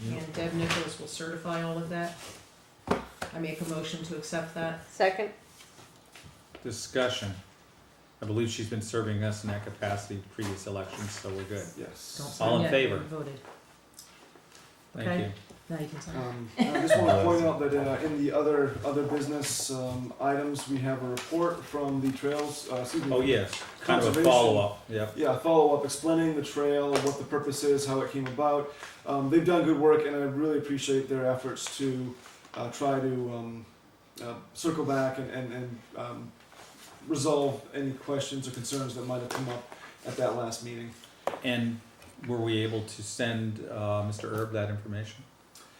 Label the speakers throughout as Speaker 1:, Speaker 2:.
Speaker 1: and Deb Nichols will certify all of that. I make a motion to accept that.
Speaker 2: Second,
Speaker 3: Discussion. I believe she's been serving us in that capacity previous elections, so we're good.
Speaker 1: Don't
Speaker 4: Yes.
Speaker 1: sign
Speaker 3: All in
Speaker 1: yet,
Speaker 3: favor?
Speaker 1: haven't voted.
Speaker 3: Thank
Speaker 1: Okay.
Speaker 3: you.
Speaker 1: Now you can sign.
Speaker 4: Um, I just want to point out that uh, in the other other business um, items, we have a report from the trails. Uh, excuse me.
Speaker 3: Oh, yes, kind of a
Speaker 4: Conservation.
Speaker 3: follow-up, yep.
Speaker 4: Yeah, follow up explaining the trail, what the purpose is, how it came about. Um, they've done good work, and I really appreciate their efforts to uh, try to um, uh, circle back and, and, and um, resolve any questions or concerns that might have come up at that last meeting.
Speaker 3: And were we able to send uh, Mr. Erb that information?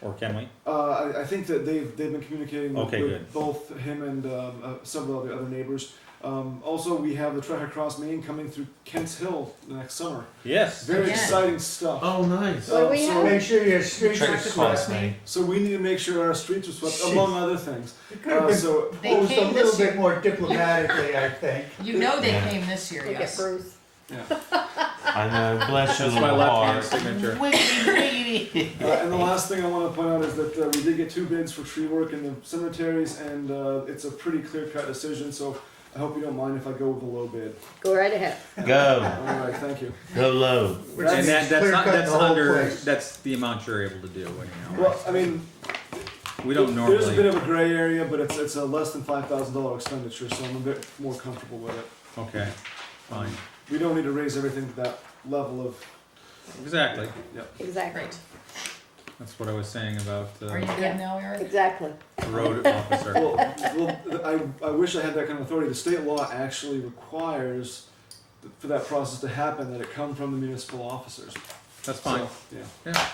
Speaker 3: Or can we?
Speaker 4: Uh, I, I think that they've, they've been communicating with,
Speaker 3: Okay,
Speaker 4: with
Speaker 3: good.
Speaker 4: both him and um, uh, several of the other neighbors. Um, also, we have the Trek Across Maine coming through Kent's Hill next summer.
Speaker 3: Yes.
Speaker 4: Very
Speaker 1: Yes.
Speaker 4: exciting stuff.
Speaker 5: Oh, nice.
Speaker 2: What do we
Speaker 4: so-
Speaker 2: have?
Speaker 6: Make sure your streets
Speaker 1: Trick
Speaker 6: are
Speaker 1: to
Speaker 6: swept.
Speaker 1: cross me.
Speaker 4: So we need to make sure our streets are swept,
Speaker 6: Jeez.
Speaker 4: among other things.
Speaker 6: It could have
Speaker 4: Uh,
Speaker 6: been
Speaker 4: so
Speaker 1: They
Speaker 6: posed a
Speaker 1: came
Speaker 6: little
Speaker 1: this year.
Speaker 6: bit more diplomatically, I think.
Speaker 1: You know they
Speaker 7: Yeah.
Speaker 1: came this year,
Speaker 2: look at
Speaker 1: yes.
Speaker 2: Bruce.
Speaker 7: I know, bless your
Speaker 3: That's my
Speaker 7: little
Speaker 3: left-hand
Speaker 7: heart.
Speaker 3: signature.
Speaker 4: uh, and the last thing I want to point out is that uh, we did get two bids for tree work in the cemeteries, and uh, it's a pretty clear cut decision. So I hope you don't mind if I go with the low bid.
Speaker 2: Go right ahead.
Speaker 7: Go,
Speaker 4: All right, thank you.
Speaker 7: go low.
Speaker 6: Which
Speaker 3: And that,
Speaker 6: means
Speaker 3: that's
Speaker 6: clear
Speaker 3: not,
Speaker 6: cut
Speaker 3: that's
Speaker 6: the whole
Speaker 3: under,
Speaker 6: place.
Speaker 3: that's the amount you're able to do anyhow.
Speaker 4: Well, I mean,
Speaker 3: We don't
Speaker 4: there's a bit
Speaker 3: normally,
Speaker 4: of a gray area, but it's it's a less than five thousand dollar expenditure, so I'm a bit more comfortable with it.
Speaker 3: okay, fine,
Speaker 4: We don't need to raise everything to that level of.
Speaker 3: exactly.
Speaker 2: Exactly.
Speaker 1: Great.
Speaker 3: That's what I was saying about
Speaker 1: Are you
Speaker 3: uh,
Speaker 1: good now, Eric?
Speaker 2: Exactly.
Speaker 3: the road officer.
Speaker 4: Well, well, I, I wish I had that kind of authority. The state law actually requires th- for that process to happen that it come from the municipal officers.
Speaker 3: That's fine,
Speaker 4: So, yeah,
Speaker 3: yeah.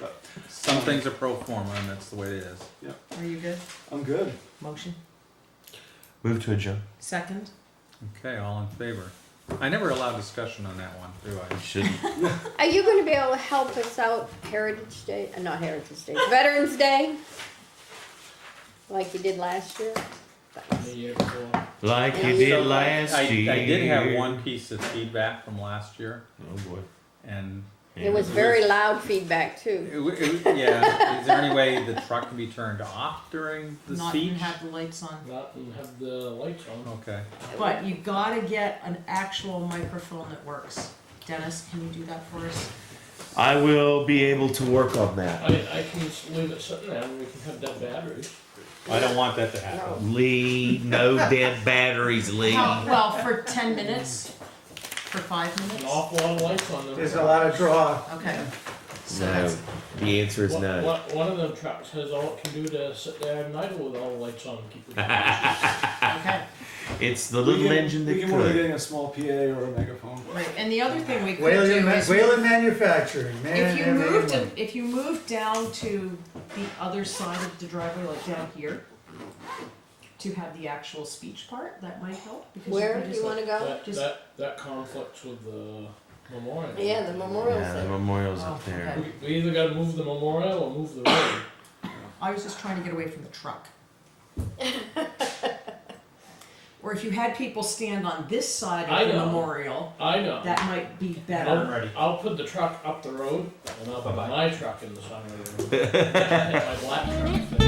Speaker 4: But-
Speaker 3: Some things are pro forma and that's the way it is.
Speaker 1: Are you good?
Speaker 4: I'm good.
Speaker 1: Motion?
Speaker 7: Move to adjourn.
Speaker 1: Second?
Speaker 3: Okay, all in favor? I never allow discussion on that one, do I?
Speaker 7: Shouldn't.
Speaker 2: Are you gonna be able to help us out Heritage Day, uh, not Heritage Day, Veterans Day? Like you did last year?
Speaker 7: Like you did last
Speaker 3: I,
Speaker 7: year.
Speaker 3: I did have one piece of feedback from last year
Speaker 7: Oh boy.
Speaker 3: and
Speaker 2: It was very loud feedback
Speaker 3: it,
Speaker 2: too.
Speaker 3: w- it, w- yeah, is there any way the truck can be turned off during the
Speaker 1: Not
Speaker 3: speech?
Speaker 1: even have the lights on.
Speaker 8: Not and have the lights on.
Speaker 3: okay.
Speaker 1: But you gotta get an actual microphone that works. Dennis, can you do that for us?
Speaker 7: I will be able to work on
Speaker 8: I,
Speaker 7: that.
Speaker 8: I can just leave it sitting there and we can have dead batteries.
Speaker 3: I don't want that to happen.
Speaker 7: Lee, no dead batteries, Lee.
Speaker 1: How- Well, for ten minutes, for five
Speaker 8: An
Speaker 1: minutes?
Speaker 8: awful lot of lights on them.
Speaker 6: There's a lot of draw.
Speaker 1: Okay. So
Speaker 7: No,
Speaker 1: that's,
Speaker 7: the answer is
Speaker 8: One-
Speaker 7: no.
Speaker 8: one- One of them trucks has all it can do to sit there and idle with all the lights on and keep the batteries.
Speaker 1: okay.
Speaker 7: It's the little
Speaker 4: we can,
Speaker 7: engine
Speaker 4: we
Speaker 7: that
Speaker 4: can work on
Speaker 7: could.
Speaker 4: getting a small PA or a megaphone.
Speaker 1: Right, and the other thing we could do
Speaker 6: Whalen, Ma-
Speaker 1: is,
Speaker 6: Whalen Manufacturing, man,
Speaker 1: if you
Speaker 6: everyone.
Speaker 1: moved, it- if you moved down to the other side of the driveway, like down here, to have the actual speech part, that might help, because you
Speaker 2: Where
Speaker 1: could
Speaker 2: do
Speaker 1: just,
Speaker 2: you wanna go?
Speaker 8: That,
Speaker 1: Just-
Speaker 8: that, that conflicts with the memorial.
Speaker 2: Yeah, the memorial
Speaker 7: Yeah, the
Speaker 2: thing.
Speaker 7: memorial's
Speaker 1: Oh,
Speaker 7: up there.
Speaker 1: okay.
Speaker 8: We, we either gotta move the memorial or move the road.
Speaker 1: I was just trying to get away from the truck. Or if you had people stand on this side
Speaker 8: I
Speaker 1: of the
Speaker 8: know.
Speaker 1: memorial,
Speaker 8: I know.
Speaker 1: that might be better.
Speaker 8: I'll, I'll put the truck up the road and I'll put my truck in the side of the road. My black truck.